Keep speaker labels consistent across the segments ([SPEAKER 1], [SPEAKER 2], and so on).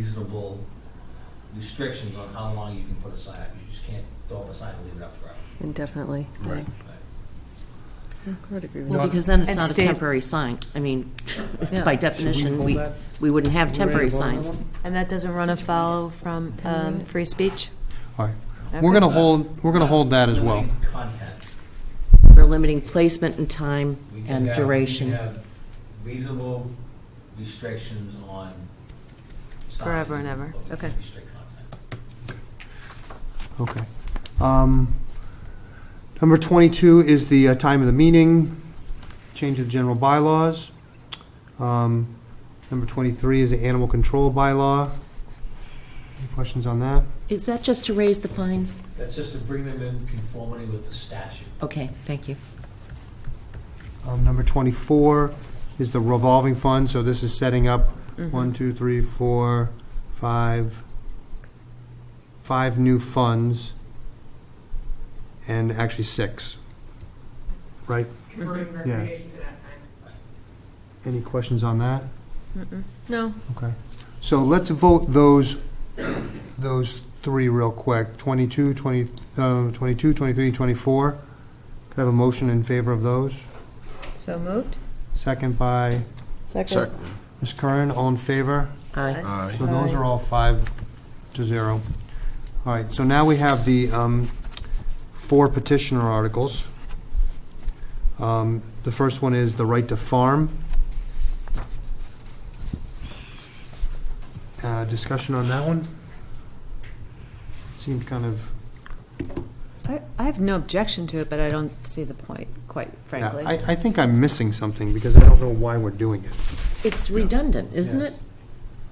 [SPEAKER 1] reasonable restrictions on how long you can put a sign up. You just can't throw up a sign and leave it up forever.
[SPEAKER 2] indefinitely.
[SPEAKER 3] Right.
[SPEAKER 2] I would agree with
[SPEAKER 4] Well,
[SPEAKER 3] Not-
[SPEAKER 4] because then it's
[SPEAKER 5] And
[SPEAKER 4] not a
[SPEAKER 5] state-
[SPEAKER 4] temporary sign. I mean,
[SPEAKER 2] Yeah.
[SPEAKER 4] by
[SPEAKER 3] Should we
[SPEAKER 4] definition,
[SPEAKER 3] hold
[SPEAKER 4] we,
[SPEAKER 3] that?
[SPEAKER 4] we wouldn't have
[SPEAKER 3] Ready to
[SPEAKER 4] temporary
[SPEAKER 3] vote on that
[SPEAKER 4] signs.
[SPEAKER 3] one?
[SPEAKER 5] And that doesn't run afoul from um, free speech?
[SPEAKER 3] All right.
[SPEAKER 5] Okay.
[SPEAKER 3] We're going to hold, we're going to hold that as well.
[SPEAKER 1] Limiting Content.
[SPEAKER 4] We're limiting placement and time
[SPEAKER 1] We can
[SPEAKER 4] and
[SPEAKER 1] have- We
[SPEAKER 4] duration.
[SPEAKER 1] can have reasonable restrictions on signs.
[SPEAKER 5] Forever and ever.
[SPEAKER 1] but we
[SPEAKER 5] Okay.
[SPEAKER 1] can't restrict content.
[SPEAKER 3] Okay. Um, Number 22 is the uh, time of the meeting, change of general bylaws. Um, Number 23 is the animal control bylaw. Any questions on that?
[SPEAKER 4] Is that just to raise the fines?
[SPEAKER 1] That's just to bring them in conformity with the statute.
[SPEAKER 4] Okay, thank you.
[SPEAKER 3] Um, Number 24 is the revolving fund, so this is setting up one, two, three, four, five, five new funds, and actually six, right?
[SPEAKER 6] converting recreation to that time.
[SPEAKER 3] Any questions on that?
[SPEAKER 2] No.
[SPEAKER 3] Okay. So let's vote those, those three real quick, 22, 20, uh, 22, 23, and 24. Could I have a motion in favor of those?
[SPEAKER 5] So moved?
[SPEAKER 3] Second by
[SPEAKER 2] Second.
[SPEAKER 7] Second,
[SPEAKER 3] Ms. Curran, all in favor?
[SPEAKER 4] Aye.
[SPEAKER 7] aye.
[SPEAKER 3] So those
[SPEAKER 5] Aye.
[SPEAKER 3] are all five to zero. All right, so now we have the um, four petitioner articles. Um, The first one is the right to farm. Uh, Discussion on that one? Seems kind of,
[SPEAKER 5] I I have no objection to it, but I don't see the point, quite
[SPEAKER 3] yeah,
[SPEAKER 5] frankly.
[SPEAKER 3] I I think I'm missing something because I don't know why we're doing it.
[SPEAKER 4] It's redundant, isn't
[SPEAKER 3] Yes.
[SPEAKER 4] it?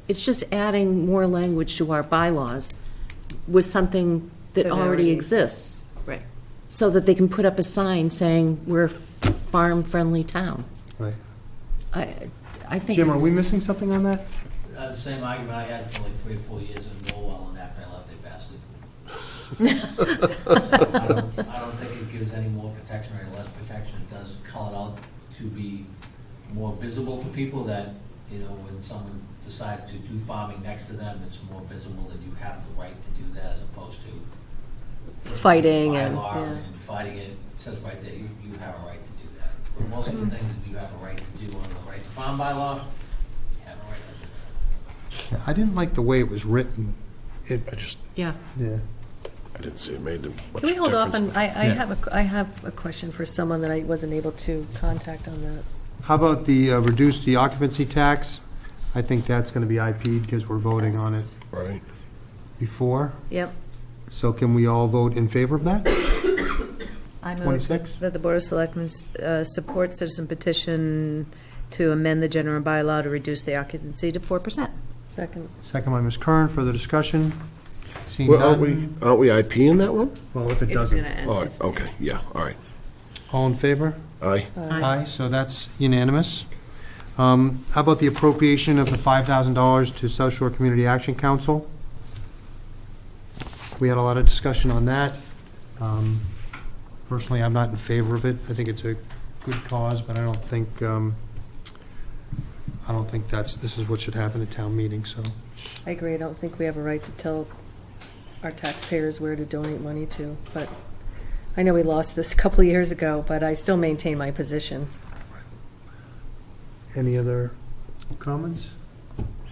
[SPEAKER 4] It's just adding more language to our bylaws with something that
[SPEAKER 5] That
[SPEAKER 4] already
[SPEAKER 5] already-
[SPEAKER 4] exists,
[SPEAKER 5] Right.
[SPEAKER 4] so that they can put up a sign saying, we're a farm-friendly town.
[SPEAKER 3] Right.
[SPEAKER 4] I, I think
[SPEAKER 3] Jim, are we
[SPEAKER 4] it's-
[SPEAKER 3] missing something on that?
[SPEAKER 1] Uh, The same argument I had for like three or four years in Norwell, and after I left, they passed it. So I don't- I don't think it gives any more protection or any less protection. It does call it out to be more visible to people that, you know, when someone decides to do farming next to them, it's more visible that you have the right to do that as opposed to.
[SPEAKER 2] Fighting and-
[SPEAKER 1] Bylaw
[SPEAKER 2] yeah.
[SPEAKER 1] and fighting it. It says right there, you, you have a right to do that. But most of the things that you have a right to do under the right to farm bylaw, you have a right to do that.
[SPEAKER 3] I didn't like the way it was written. It,
[SPEAKER 7] I just,
[SPEAKER 4] Yeah.
[SPEAKER 3] yeah.
[SPEAKER 7] I didn't see it made much difference.
[SPEAKER 2] Can we hold off on, I, I
[SPEAKER 3] Yeah.
[SPEAKER 2] have, a- I have a question for someone that I wasn't able to contact on that.
[SPEAKER 3] How about the, uh, reduce the occupancy tax? I think that's going to be IP'd because we're voting on it
[SPEAKER 7] Right.
[SPEAKER 3] before.
[SPEAKER 5] Yep.
[SPEAKER 3] So can we all vote in favor of that?
[SPEAKER 5] I move
[SPEAKER 3] 26?
[SPEAKER 5] that the Board of Selectmen uh, support citizen petition to amend the general bylaw to reduce the occupancy to 4%.
[SPEAKER 2] Second.
[SPEAKER 3] Second by Ms. Curran, further discussion? Seeing
[SPEAKER 7] Well, aren't we,
[SPEAKER 3] none?
[SPEAKER 7] aren't we IP in that one?
[SPEAKER 3] Well, if it
[SPEAKER 5] It's going to
[SPEAKER 3] doesn't.
[SPEAKER 5] end.
[SPEAKER 7] Oh, okay, yeah, all right.
[SPEAKER 3] All in favor?
[SPEAKER 7] Aye.
[SPEAKER 3] Aye, so that's unanimous. Um, How about the appropriation of the $5,000 to South Shore Community Action Council? We had a lot of discussion on that. Um, Personally, I'm not in favor of it. I think it's a good cause, but I don't think, um, I don't think that's, this is what should happen at town meeting, so.
[SPEAKER 2] I agree, I don't think we have a right to tell our taxpayers where to donate money to, but I know we lost this a couple of years ago, but I still maintain my position.
[SPEAKER 3] Any other comments?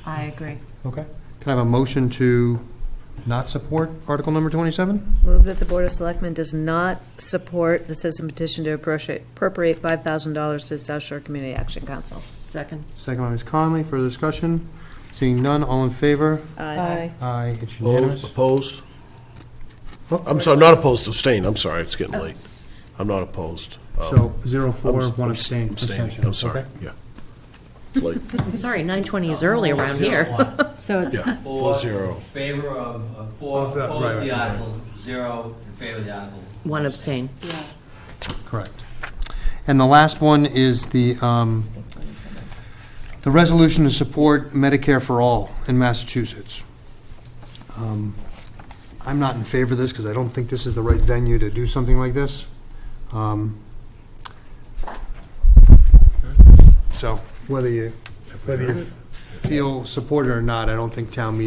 [SPEAKER 5] I agree.
[SPEAKER 3] Okay. Can I have a motion to not support Article Number 27?
[SPEAKER 5] Move that the Board of Selectmen does not support the citizen petition to appropriate appropriate $5,000 to South Shore Community Action Council.
[SPEAKER 4] Second.
[SPEAKER 3] Second by Ms. Conley, further discussion? Seeing none, all in favor?
[SPEAKER 5] Aye.
[SPEAKER 3] Aye, it's
[SPEAKER 7] Opposed?
[SPEAKER 3] unanimous.
[SPEAKER 7] Opposed?
[SPEAKER 3] Oh.
[SPEAKER 7] I'm sorry, not opposed, abstained, I'm sorry, it's
[SPEAKER 2] Oh.
[SPEAKER 7] getting late. I'm not opposed. Um,
[SPEAKER 3] So, zero, four,
[SPEAKER 7] I'm-
[SPEAKER 3] one
[SPEAKER 7] I'm
[SPEAKER 3] abstain.
[SPEAKER 7] abstaining.
[SPEAKER 3] abstention.
[SPEAKER 7] I'm sorry,
[SPEAKER 3] Okay.
[SPEAKER 7] yeah. It's late.
[SPEAKER 4] Sorry, 9:20 is early around
[SPEAKER 1] Zero
[SPEAKER 4] here.
[SPEAKER 1] one.
[SPEAKER 2] So it's,
[SPEAKER 7] yeah,
[SPEAKER 1] Four
[SPEAKER 7] four zero.
[SPEAKER 1] Favor of, of four,
[SPEAKER 3] Of the-
[SPEAKER 1] opposed
[SPEAKER 3] right,
[SPEAKER 1] to the
[SPEAKER 3] right, right.
[SPEAKER 1] article, zero in favor of the article.
[SPEAKER 4] One abstain.
[SPEAKER 3] Correct. And the last one is the, um, the resolution to support Medicare for All in Massachusetts. Um, I'm not in favor of this because I don't think this is the right venue to do something like this. Um, So, whether you, whether you feel supported or not, I don't think town meeting